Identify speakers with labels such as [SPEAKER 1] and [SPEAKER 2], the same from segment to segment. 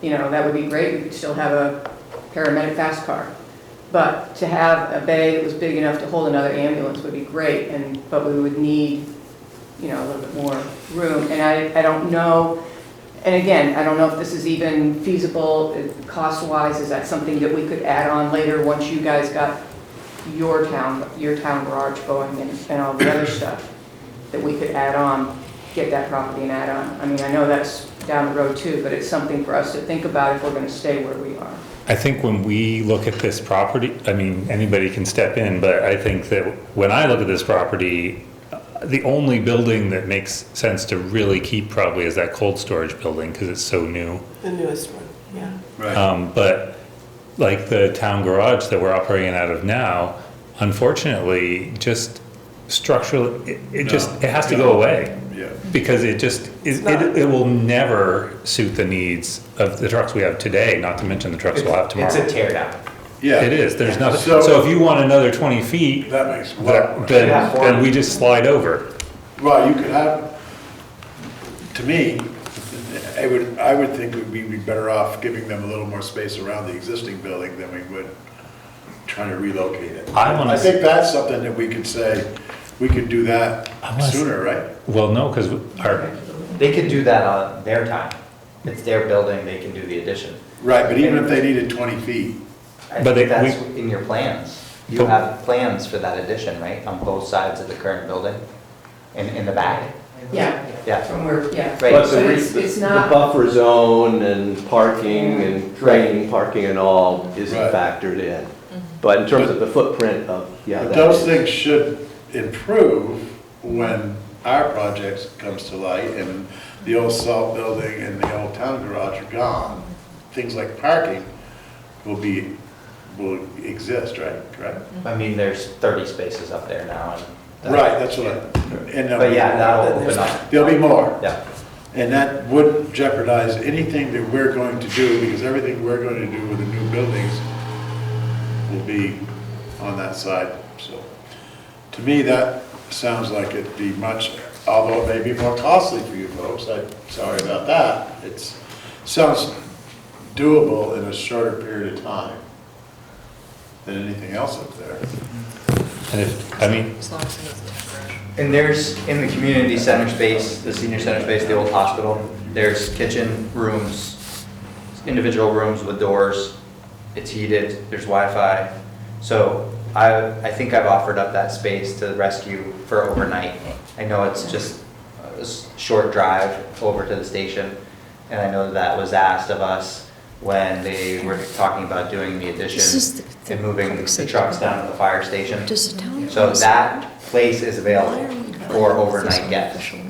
[SPEAKER 1] you know, that would be great, we could still have a paramedic fast car. But to have a bay that was big enough to hold another ambulance would be great, and, but we would need, you know, a little bit more room. And I, I don't know, and again, I don't know if this is even feasible, uh, cost-wise, is that something that we could add on later, once you guys got your town, your town garage going and, and all the other stuff, that we could add on, get that property and add on. I mean, I know that's down the road too, but it's something for us to think about if we're gonna stay where we are.
[SPEAKER 2] I think when we look at this property, I mean, anybody can step in, but I think that when I look at this property, uh, the only building that makes sense to really keep probably is that cold storage building because it's so new.
[SPEAKER 3] The newest one, yeah.
[SPEAKER 4] Right.
[SPEAKER 2] Um, but like the town garage that we're operating out of now, unfortunately, just structurally, it, it just,
[SPEAKER 4] No.
[SPEAKER 2] it has to go away.
[SPEAKER 4] Yeah.
[SPEAKER 2] Because it just, it, it, it will never suit the needs of the trucks we have today, not to mention the trucks we'll have tomorrow.
[SPEAKER 5] It's a tear down.
[SPEAKER 4] Yeah.
[SPEAKER 2] It is, there's nothing,
[SPEAKER 4] So-
[SPEAKER 2] so if you want another twenty feet, that-
[SPEAKER 4] That makes a lot
[SPEAKER 2] then,
[SPEAKER 4] more sense.
[SPEAKER 2] then we just slide over.
[SPEAKER 4] Well, you could have, to me, I would, I would think we'd be better off giving them a little more space around the existing building than we would trying to relocate it.
[SPEAKER 2] I wanna
[SPEAKER 4] I think that's something that we could say, we could do that
[SPEAKER 2] I wanna s-
[SPEAKER 4] sooner, right?
[SPEAKER 2] Well, no, because our,
[SPEAKER 5] They could do that on their time. It's their building, they can do the addition.
[SPEAKER 4] Right, but even if they needed twenty feet,
[SPEAKER 5] I
[SPEAKER 2] But
[SPEAKER 5] think
[SPEAKER 2] they- we-
[SPEAKER 5] that's in your plans. You
[SPEAKER 2] But-
[SPEAKER 5] have plans for that addition, right, on both sides of the current building? In, in the back?
[SPEAKER 1] Yeah.
[SPEAKER 5] Yeah.
[SPEAKER 1] From where, yeah.
[SPEAKER 5] Right.
[SPEAKER 6] But
[SPEAKER 1] So
[SPEAKER 6] the,
[SPEAKER 1] it's-
[SPEAKER 6] re-
[SPEAKER 1] it's
[SPEAKER 6] the- the
[SPEAKER 1] not- Mm-hmm.
[SPEAKER 6] buffer zone and parking and draining parking and all isn't
[SPEAKER 4] Right.
[SPEAKER 6] factored in.
[SPEAKER 1] Mm-hmm.
[SPEAKER 6] But in terms of the footprint of, yeah.
[SPEAKER 4] but
[SPEAKER 6] that
[SPEAKER 4] those
[SPEAKER 6] is-
[SPEAKER 4] things should improve when our projects comes to light and the old salt building and the old town garage are gone. Things like parking will be, will exist, right, correct?
[SPEAKER 5] I mean, there's 30 spaces up there now and.
[SPEAKER 4] Right, that's what I, and there'll
[SPEAKER 5] But
[SPEAKER 4] be
[SPEAKER 5] yeah,
[SPEAKER 4] more.
[SPEAKER 5] that'll open up.
[SPEAKER 4] There'll be more,
[SPEAKER 5] Yeah.
[SPEAKER 4] and that wouldn't jeopardize anything that we're going to do, because everything we're going to do with the new buildings will be on that side, so. To me, that sounds like it'd be much, although it may be more costly for you folks, I'm sorry about that. It's, sounds doable in a shorter period of time than anything else up there.
[SPEAKER 2] and if- I mean,
[SPEAKER 7] As long as it's temporary.
[SPEAKER 5] And there's, in the community center space, the senior center space, the old hospital, there's kitchen rooms, individual rooms with doors, it's heated, there's Wi-Fi. So I, I think I've offered up that space to the rescue for overnight. I know it's just a s- short drive over to the station, and I know that was asked of us when they were talking about doing the
[SPEAKER 7] This is the-
[SPEAKER 5] addition
[SPEAKER 7] the
[SPEAKER 5] and moving
[SPEAKER 7] public
[SPEAKER 5] the
[SPEAKER 7] safety.
[SPEAKER 5] trucks down to the fire station.
[SPEAKER 7] Does the town?
[SPEAKER 5] So that place is
[SPEAKER 7] Why are we
[SPEAKER 5] available
[SPEAKER 7] not
[SPEAKER 5] for
[SPEAKER 7] on
[SPEAKER 5] overnight
[SPEAKER 7] this
[SPEAKER 5] guests
[SPEAKER 7] official line?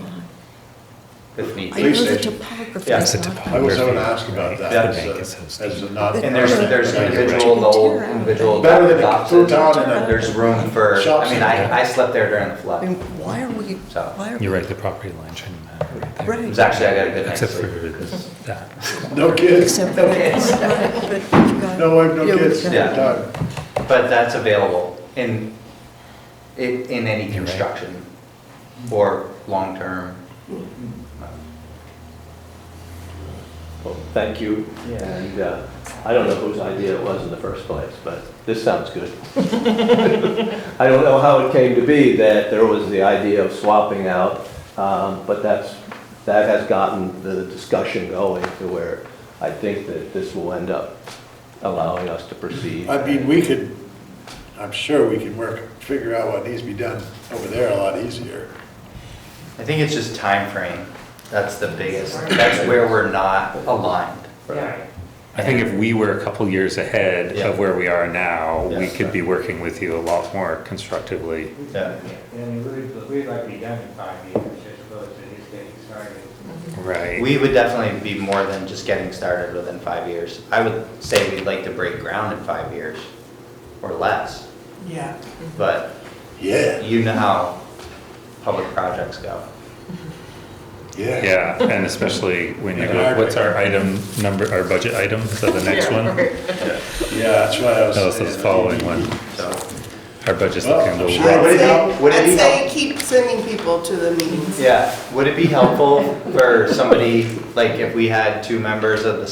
[SPEAKER 5] if need
[SPEAKER 7] I
[SPEAKER 4] Police
[SPEAKER 7] know
[SPEAKER 5] be.
[SPEAKER 7] the
[SPEAKER 4] station.
[SPEAKER 7] topography
[SPEAKER 5] Yeah,
[SPEAKER 7] is
[SPEAKER 2] the
[SPEAKER 7] not.
[SPEAKER 4] I was going to ask about that
[SPEAKER 5] Yeah.
[SPEAKER 4] as a, as a not.
[SPEAKER 5] And there's, there's individual, the old individual
[SPEAKER 4] Better than a
[SPEAKER 5] offices.
[SPEAKER 4] futon and a-
[SPEAKER 5] There's room for,
[SPEAKER 4] Shops
[SPEAKER 5] I mean,
[SPEAKER 4] and-
[SPEAKER 5] I, I slept there during the
[SPEAKER 7] I
[SPEAKER 5] flood.
[SPEAKER 7] mean, why are we,
[SPEAKER 5] So,
[SPEAKER 7] why are we?
[SPEAKER 2] you're right, the property line shouldn't matter right there.
[SPEAKER 5] It
[SPEAKER 7] Right.
[SPEAKER 5] was actually, I got a good night's
[SPEAKER 2] Except for
[SPEAKER 5] sleep.
[SPEAKER 2] this, that.
[SPEAKER 4] No kids,
[SPEAKER 7] Except for.
[SPEAKER 5] No kids.
[SPEAKER 7] Right, but you've got-
[SPEAKER 4] no wife, no
[SPEAKER 7] Yeah,
[SPEAKER 4] kids,
[SPEAKER 7] we've
[SPEAKER 5] Yeah.
[SPEAKER 7] got-
[SPEAKER 4] done.
[SPEAKER 5] But that's available in, in, in any
[SPEAKER 2] You're right.
[SPEAKER 5] construction or long-term.
[SPEAKER 6] Well, oh, Thank you.
[SPEAKER 5] Yeah.
[SPEAKER 6] And uh, I don't know whose idea it was in the first place, but this sounds good. I don't know how it came to be that there was the idea of swapping out, um, but that's, that has gotten the discussion going to where I think that this will end up allowing us to proceed.
[SPEAKER 4] I mean, we could, I'm sure we can work, figure out what needs to be done over there a lot easier.
[SPEAKER 5] I think it's just time frame. That's the biggest, that's where we're not aligned.
[SPEAKER 1] Yeah.
[SPEAKER 2] I think if we were a couple years ahead
[SPEAKER 5] Yeah.
[SPEAKER 2] of where we are now, we
[SPEAKER 5] Yes.
[SPEAKER 2] could be working with you a lot more constructively.
[SPEAKER 5] Yeah.
[SPEAKER 8] And we'd, we'd like to be done in five years, as opposed to just getting started.
[SPEAKER 2] Right.
[SPEAKER 5] We would definitely be more than just getting started within five years. I would say we'd like to break ground in five years or less,
[SPEAKER 3] Yeah.
[SPEAKER 5] but
[SPEAKER 4] Yeah,
[SPEAKER 5] you know how public projects go.
[SPEAKER 4] yeah.
[SPEAKER 2] Yeah, and especially when you
[SPEAKER 4] Yeah.
[SPEAKER 2] go, what's our item number, our budget item, so the next one?
[SPEAKER 4] Yeah, that's what I was.
[SPEAKER 2] No, it's the
[SPEAKER 4] saying.
[SPEAKER 2] following one.
[SPEAKER 5] So
[SPEAKER 2] Our budget's
[SPEAKER 4] Well,
[SPEAKER 2] looking a
[SPEAKER 4] I'm
[SPEAKER 2] little
[SPEAKER 4] sure
[SPEAKER 2] rough.
[SPEAKER 4] everybody-
[SPEAKER 3] I'd say-
[SPEAKER 5] Would it be
[SPEAKER 3] I'd say
[SPEAKER 5] help-
[SPEAKER 3] keep sending people to the meetings.
[SPEAKER 5] Yeah, would it be helpful for somebody, like if we had two members of the